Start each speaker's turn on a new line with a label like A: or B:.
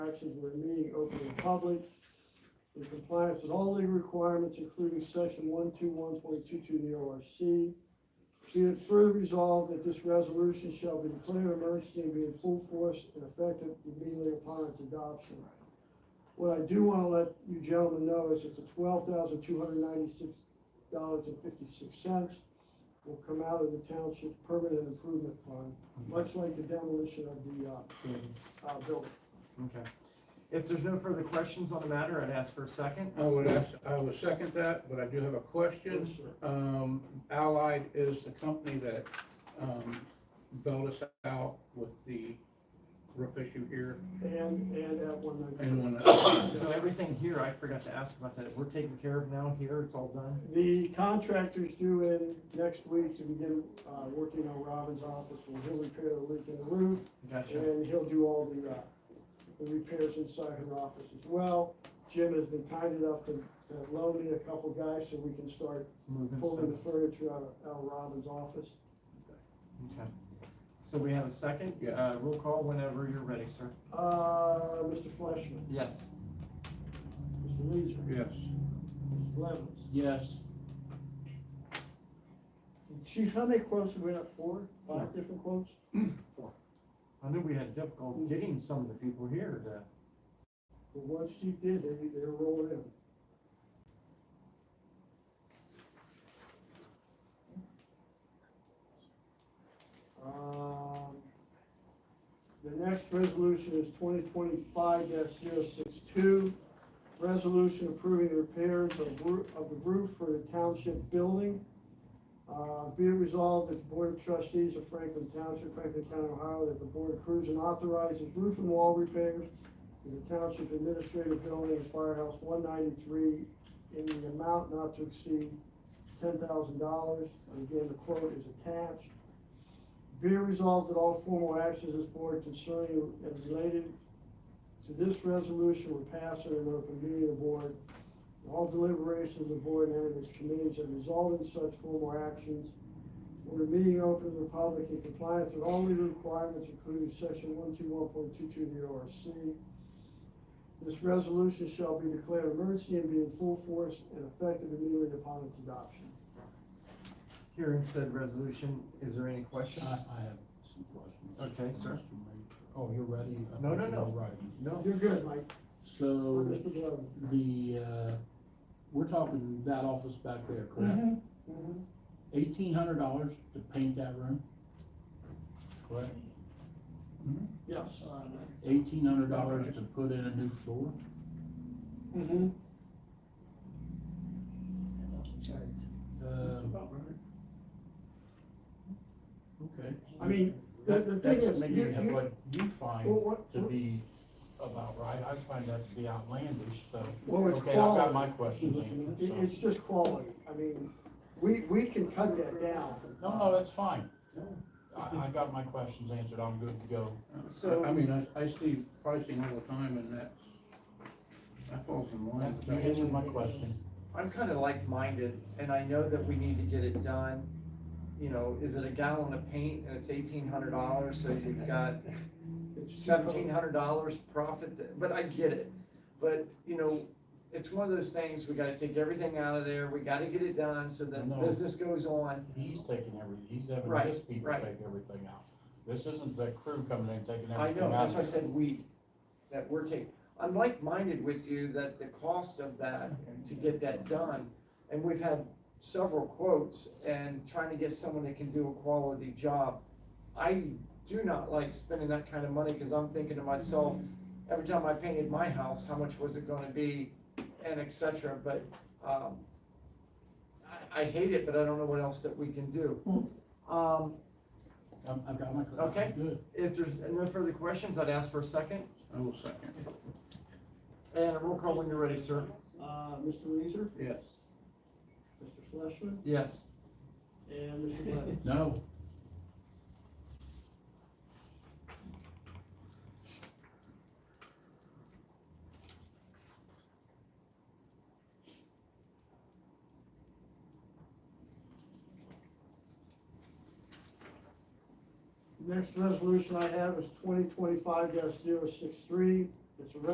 A: actions were meeting open and public in compliance with all legal requirements, including section one two one point two two of the ORC. Be it further resolved that this resolution shall be declared an emergency and be in full force and effective immediately upon its adoption. What I do wanna let you gentlemen know is that the twelve thousand two hundred ninety-six dollars and fifty-six cents will come out of the township permanent improvement fund, much like the demolition of the, uh, uh, building.
B: Okay. If there's no further questions on the matter, I'd ask for a second.
C: I would ask, I would second that, but I do have a
A: Yes,
C: question.
A: sir.
C: Um, Allied is the company that, um, bailed us out with the roof issue here
A: And, and that one ninety.
C: and uh, one.
B: So everything here, I forgot to ask about that, we're taken care of now here, it's all done?
A: The contractor's due in next week to begin, uh, working on Robin's office, where he'll repair the leak in the roof,
B: Gotcha.
A: and he'll do all the, uh, the repairs inside her office as well. Jim has been kind enough to, to loan me a couple guys so we can start
B: Moving
A: pulling the
B: stuff.
A: furniture out of, out of Robin's office.
B: Okay. So we have a second,
C: Yeah.
B: uh, roll call whenever you're ready, sir.
A: Uh, Mr. Fleishman,
B: Yes.
A: Mr. Leeser,
C: Yes.
A: Mr. Levens.
C: Yes.
A: Chief, how many quotes have we got? Four, five different quotes?
B: I knew we had difficulty getting some of the people here to.
A: The ones Chief did, they, they're rolling in. Um, The next resolution is twenty twenty-five 62 resolution approving repairs of roo- of the roof for the township building. Uh, be it resolved that the Board of Trustees of Franklin Township, Franklin County, Ohio, that the Board approves and authorizes roof and wall repairs in the Township Administrative Building, Firehouse one ninety-three, in the amount not to exceed ten thousand dollars. And again, the quote is attached. Be it resolved that all formal actions of this board concerning and related to this resolution were passed in an open meeting of the board. And All deliberations of the board and its committees have resulted in such formal actions. We're meeting open to the public in compliance with all legal requirements, including section one two one point two two of the ORC. This resolution shall be declared emergency and be in full force and effective immediately upon its adoption.
B: Hearing said resolution, is there any questions?
D: I, I have some questions.
B: Okay, sir.
D: Mr. Mayor. Oh, you're ready? I
B: No,
D: thought
B: no,
D: you
B: no.
D: were Right.
B: No.
A: You're good, Mike. Or
D: So,
A: Mr. Blow.
D: the, uh, we're talking that office back there, correct?
A: Mhm.
D: Eighteen hundred dollars to paint that room? Correct.
A: Yes.
D: Eighteen hundred dollars to put in a new floor?
A: Mhm.
D: Um, Okay.
A: I mean, the, the thing
D: That's
A: is,
D: maybe
A: you, you,
D: what you
A: well,
D: find
A: what,
D: to be about right. I find that to be outlandish, so.
A: well, it's
D: Okay, I've got
A: quality.
D: my questions answered,
A: It-
D: so.
A: It's just quality. I mean, we, we can cut that down.
D: No, no, that's fine. I, I got my questions answered, I'm good to go.
C: So, I mean, I, I see pricing all the time and that's, that falls in line. with
D: You
C: that.
D: answered my question.
B: I'm kind of like-minded, and I know that we need to get it done. You know, is it a gallon of paint and it's eighteen hundred dollars, so you've got
A: It's cheaper.
B: seventeen hundred dollars profit, th- but I get it. But, you know, it's one of those things, we gotta take everything out of there, we gotta get it done, so that
D: No.
B: business goes on.
D: He's taking every, he's having
B: Right,
D: his people
B: right.
D: take everything out. This isn't the crew coming in taking everything out.
B: I know, that's why I said we, that we're taking, I'm like-minded with you that the cost of that, to get that done, and we've had several quotes, and trying to get someone that can do a quality job. I do not like spending that kind of money, cause I'm thinking to myself, every time I painted my house, how much was it gonna be, and et cetera, but, um, I, I hate it, but I don't know what else that we can do. Um,
D: I'm- I've got my.
B: Okay.
D: Good.
B: if there's no further questions, I'd ask for a second.
C: I will second,
B: And a roll call when you're ready, sir.
A: Uh, Mr. Leeser,
C: yes.
A: Mr. Fleishman,
B: Yes.
A: and Mr. Blevins.
D: No,
A: Next resolution I have is twenty twenty-five 63 It's a